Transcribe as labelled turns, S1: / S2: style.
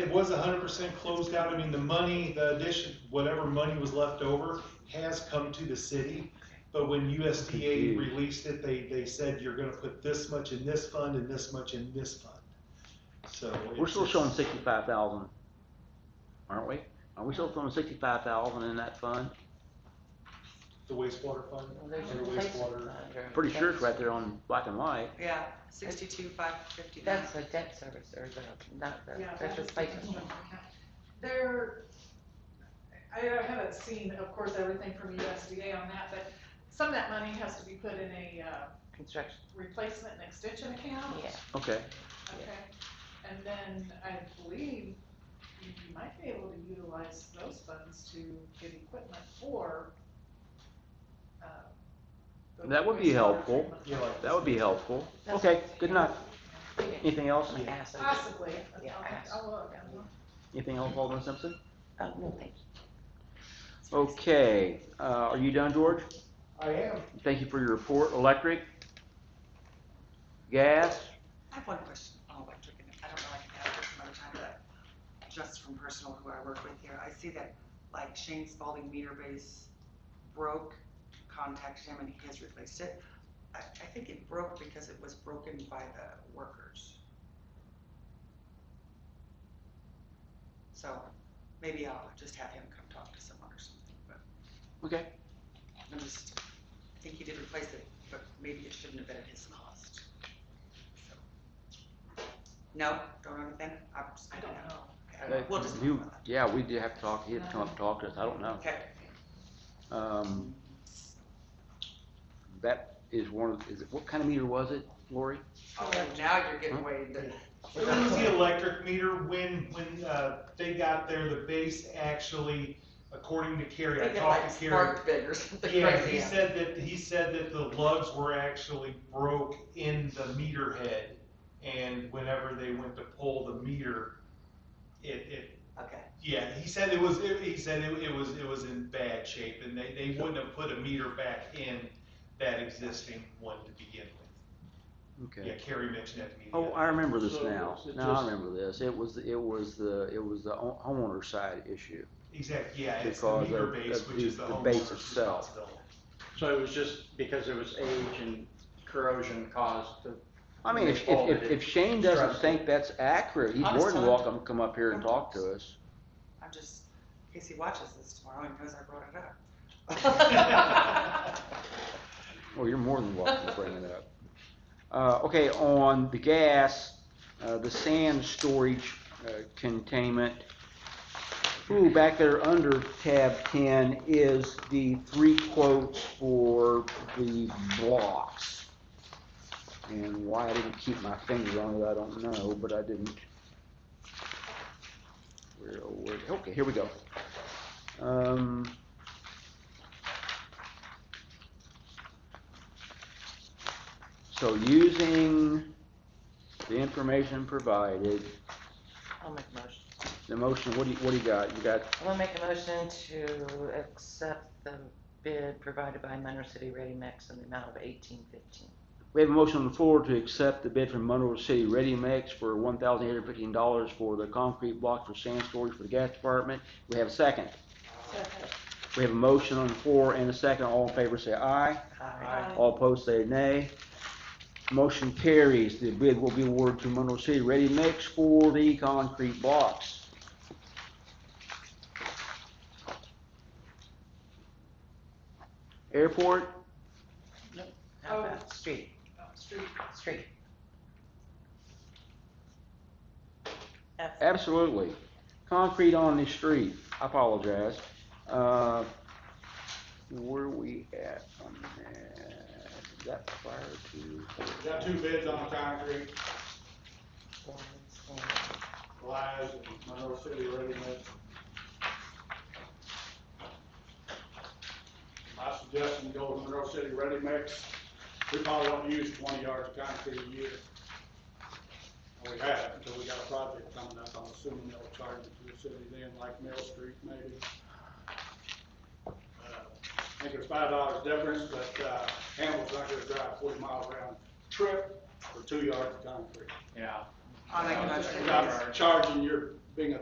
S1: It was hundred percent closed out, I mean, the money, the addition, whatever money was left over has come to the city. But when USDA
S2: Confused.
S1: released it, they, they said you're gonna put this much in this fund and this much in this fund. So.
S2: We're
S1: it's-
S2: still showing
S1: it's-
S2: sixty-five thousand, aren't we? Are we still throwing sixty-five thousand in that fund?
S1: The wastewater fund,
S3: Well,
S1: or
S3: there's
S1: the
S3: replacement
S1: wastewater,
S3: fund or
S2: Pretty sure it's
S3: debt-
S2: right there on black and white.
S4: Yeah, sixty-two, five fifty-nine.
S3: That's the debt service or the, not the,
S5: Yeah,
S3: that's
S5: that
S3: the
S5: is
S3: replacement.
S5: different.
S3: fund.
S5: There, I I haven't seen, of course, everything from USDA on that, but some of that money has to be put in a uh,
S3: Construction,
S5: replacement and extension account.
S3: yeah.
S2: Okay,
S5: Okay, and then I believe you might be able to utilize those funds to get equipment for. uh, the
S2: That would be
S5: wastewater
S2: helpful.
S5: treatment.
S1: yeah, like.
S2: that would be helpful.
S3: That's
S2: Okay,
S3: what-
S2: good enough.
S3: Yeah.
S2: Anything else?
S3: Like acid.
S5: Possibly,
S3: Yeah,
S5: I'll,
S3: acid.
S5: I'll look. I'll look.
S2: Anything else, Alderman Simpson?
S3: Oh, no, thank you.
S2: Okay, uh, are you done, George?
S1: I am,
S2: Thank you for your report. Electric? Gas?
S4: I have one question on electric, and I don't know, I can ask this another time, but just from personal who I work with here, I see that like Shane Spalding meter base broke, contact him and he has replaced it. I, I think it broke because it was broken by the workers. So maybe I'll just have him come talk to someone or something, but
S2: Okay,
S4: I'm just, I think he did replace it, but maybe it shouldn't have been at his cost. So. No, don't understand, I'm just.
S5: I don't know.
S4: Okay, We'll just.
S2: You- yeah, we do have to talk, he had to come up and talk to us, I don't know.
S4: Okay.
S2: Um, that is one of, is it, what kind of meter was it, Lori?
S4: Oh, now you're
S2: Hmm?
S4: getting way into.
S1: It was the electric meter when, when, uh, they got there, the base actually, according to Kerry, I
S4: Thinking
S1: talked
S4: like
S1: to Kerry.
S4: spark big or something
S1: Yeah, he
S4: crazy.
S1: said that, he said that the lugs were actually broke in the meter head. And whenever they went to pull the meter, it, it,
S4: Okay,
S1: yeah, he said it was, it- he said it, it was, it was in bad shape and they, they wouldn't have put a meter back in that existing one to begin with. Yeah,
S2: Okay.
S1: Kerry mentioned that to me. the
S2: Oh,
S1: other
S2: I remember this
S6: So,
S2: now.
S6: it's
S2: Now I
S6: just-
S2: remember this. It was, it was the, it was the home- homeowner side issue.
S1: Exactly, yeah, it's the
S2: Because
S1: meter
S2: of-
S1: base,
S2: of
S1: which is
S2: the-
S1: the
S2: the base
S1: homeowner's
S2: itself.
S1: responsibility.
S6: So it was just because there was age and corrosion caused the.
S2: I mean, if, if,
S6: All that
S2: if-
S6: it-
S2: if Shane doesn't
S6: Stressful.
S2: think that's accurate, he's more than
S4: Understood.
S2: welcome to come up here and talk to us.
S4: I'm just, in case he watches this tomorrow and knows I brought it up.
S2: Well, Oh, you're more than welcome to bring it up. Uh, okay, on the gas, uh, the sand storage, uh, containment. Ooh, back there under tab ten is the three quotes for the blocks. And why I didn't keep my finger on it, I don't know, but I didn't. Where, oh, where, okay, here we go. Um, so using the information provided,
S3: I'll make a motion.
S2: the motion, what do you, what do you got? You got,
S3: I'm gonna make a motion to accept the bid provided by Monroe City Ready Mix in the amount of eighteen fifteen.
S2: we have a motion on the floor to accept the bid from Monroe City Ready Mix for one thousand eight hundred fifteen dollars for the concrete block for sand storage for the gas department. We have a second.
S5: Second.
S2: We have a motion on the floor and a second. All in favor say aye.
S5: Aye.
S2: All opposed say nay. Motion carries. The bid will be awarded to Monroe City Ready Mix for the concrete blocks. Airport,
S3: How
S5: Oh.
S3: about street,
S5: Street
S3: street? F-
S2: absolutely. Concrete on the street, I apologize. Uh, where we at on that? Is that prior to?
S7: Got two bids on the concrete,
S3: one, two.
S7: Lies and Monroe City Ready Mix. My suggestion, go with Monroe City Ready Mix. We probably don't use twenty yards of concrete a year. We have, until we got a project coming up, I'm assuming they'll charge it to the city then, like Mill Street maybe. Uh, I think it's five dollars difference, but, uh, Campbell's not gonna drive forty miles round trip for two yards of concrete.
S6: Yeah.
S4: I'll make a motion.
S7: Without charging your being a